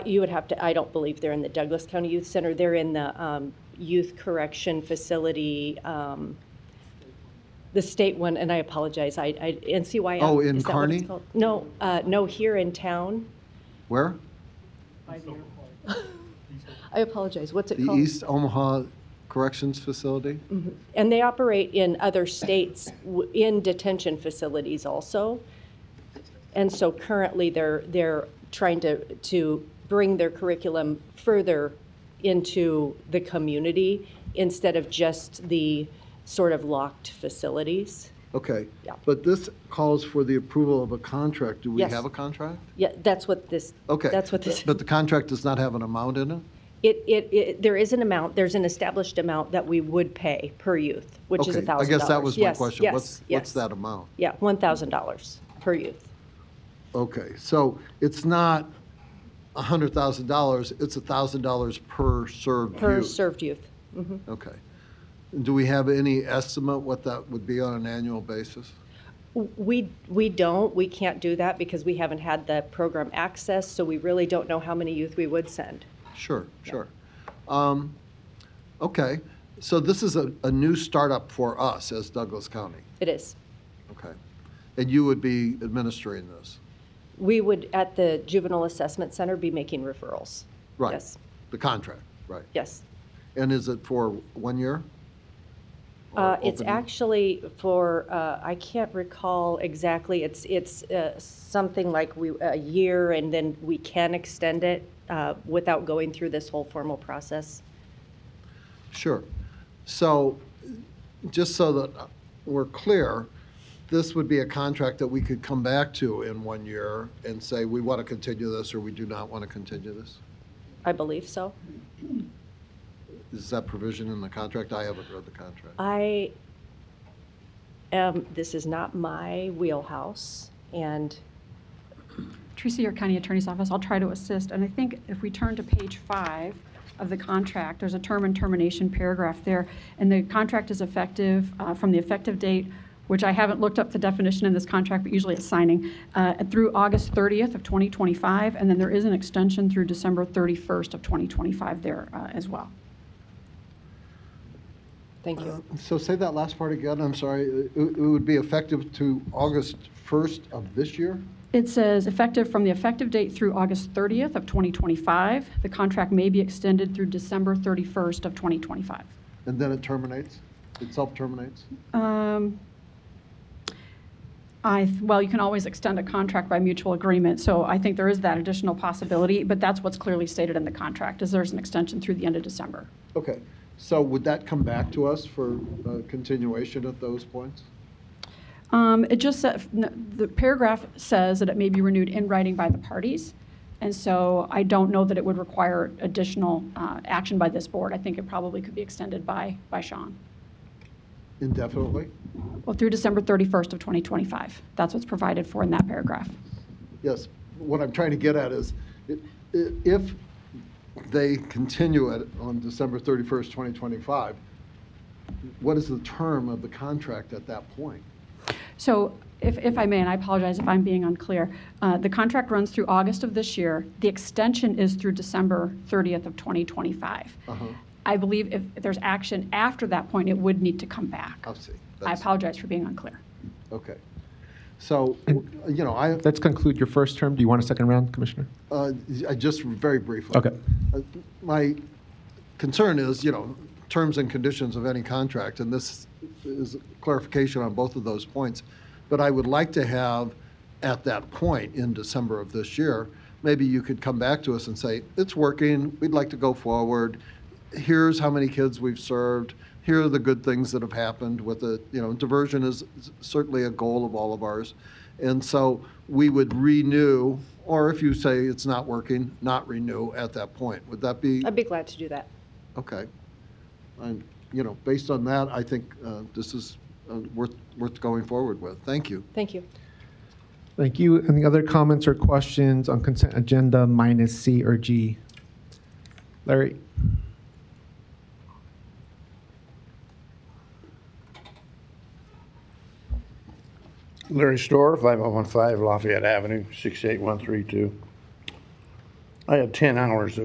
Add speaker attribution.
Speaker 1: You would have to, I don't believe they're in the Douglas County Youth Center. They're in the um, youth correction facility, um, the state one, and I apologize, I, I, NCYF.
Speaker 2: Oh, in
Speaker 1: is that what it's
Speaker 2: Kearney?
Speaker 1: called? No, uh, no, here in town.
Speaker 2: Where?
Speaker 1: I apologize, what's it
Speaker 2: The
Speaker 1: called?
Speaker 2: East Omaha Corrections Facility?
Speaker 1: Mhm. And they operate in other states w- in detention facilities also. And so currently, they're, they're trying to, to bring their curriculum further into the community instead of just the sort of locked facilities.
Speaker 2: Okay.
Speaker 1: Yeah.
Speaker 2: But this calls for the approval of a contract. Do we
Speaker 1: Yes.
Speaker 2: have a contract?
Speaker 1: Yeah, that's what this,
Speaker 2: Okay.
Speaker 1: that's what this,
Speaker 2: But the contract does not have an amount in it?
Speaker 1: it, it, it, there is an amount, there's an established amount that we would pay per youth, which is a thousand
Speaker 2: Okay,
Speaker 1: dollars.
Speaker 2: I guess that was my
Speaker 1: Yes,
Speaker 2: question.
Speaker 1: yes,
Speaker 2: What's-
Speaker 1: yes.
Speaker 2: What's that amount?
Speaker 1: Yeah, one thousand dollars per youth.
Speaker 2: Okay, so it's not $100,000, it's $1,000 per served
Speaker 1: per
Speaker 2: youth?
Speaker 1: served youth. Mhm.
Speaker 2: Okay. Do we have any estimate what that would be on an annual basis?
Speaker 1: We, we don't, we can't do that because we haven't had the program access, so we really don't know how many youth we would send.
Speaker 2: Sure, sure. Um, Okay, so this is a, a new startup for us as Douglas County,
Speaker 1: It is.
Speaker 2: okay? And you would be administering this?
Speaker 1: We would, at the Juvenile Assessment Center, be making referrals.
Speaker 2: Right.
Speaker 1: Yes,
Speaker 2: The contract, right.
Speaker 1: yes.
Speaker 2: And is it for one year? Or
Speaker 1: Uh, It's
Speaker 2: open-
Speaker 1: actually for, uh, I can't recall exactly, it's, it's uh, something like we, a year, and then we can extend it uh, without going through this whole formal process.
Speaker 2: Sure. So, just so that we're clear, this would be a contract that we could come back to in one year and say, we want to continue this, or we do not want to continue this?
Speaker 1: I believe so.
Speaker 2: Is that provision in the contract? I haven't read the contract.
Speaker 1: I am, this is not my wheelhouse, and
Speaker 3: Tracy, your county attorney's office, I'll try to assist. And I think if we turn to page five of the contract, there's a term and termination paragraph there. And the contract is effective uh, from the effective date, which I haven't looked up the definition in this contract, but usually it's signing, uh, through August 30th of 2025. And then there is an extension through December 31st of 2025 there uh, as well.
Speaker 1: thank you.
Speaker 2: So say that last part again, I'm sorry. It it would be effective to August 1st of this year?
Speaker 3: It says effective from the effective date through August 30th of 2025. The contract may be extended through December 31st of 2025.
Speaker 2: And then it terminates? It self-terminates?
Speaker 3: Um, I, th- well, you can always extend a contract by mutual agreement, so I think there is that additional possibility, but that's what's clearly stated in the contract, is there's an extension through the end of December.
Speaker 2: Okay, so would that come back to us for uh, continuation at those points?
Speaker 3: Um, It just, sa- n- the paragraph says that it may be renewed in writing by the parties, and so I don't know that it would require additional uh, action by this board. I think it probably could be extended by, by Sean.
Speaker 2: Indefinitely?
Speaker 3: Well, through December 31st of 2025, that's what's provided for in that paragraph.
Speaker 2: Yes, what I'm trying to get at is, i- i- if they continue it on December 31st, 2025, what is the term of the contract at that point?
Speaker 3: So if, if I may, and I apologize if I'm being unclear, uh, the contract runs through August of this year. The extension is through December 30th of 2025.
Speaker 2: Uh-huh,
Speaker 3: I believe if there's action after that point, it would need to come back.
Speaker 2: I see.
Speaker 3: I
Speaker 2: Oh, That's-
Speaker 3: apologize for being unclear.
Speaker 2: Okay. So, you know, I,
Speaker 4: Let's conclude your first term. Do you want a second round, Commissioner?
Speaker 2: Uh, I Just very briefly.
Speaker 4: Okay.
Speaker 2: Uh, My concern is, you know, terms and conditions of any contract, and this is clarification on both of those points. But I would like to have, at that point in December of this year, maybe you could come back to us and say, it's working, we'd like to go forward. Here's how many kids we've served. Here are the good things that have happened with it. You know, diversion is certainly a goal of all of ours. And so we would renew, or if you say it's not working, not renew at that point. Would that be,
Speaker 1: I'd be glad to do that.
Speaker 2: okay? And, you know, based on that, I think uh, this is uh, worth, worth going forward with. Thank you.
Speaker 1: Thank you.
Speaker 4: Thank you. Any other comments or questions on consent agenda minus C or G? Larry?
Speaker 5: oh Larry Store, 5015 Lafayette Avenue, 68132. Uh, I have 10 hours of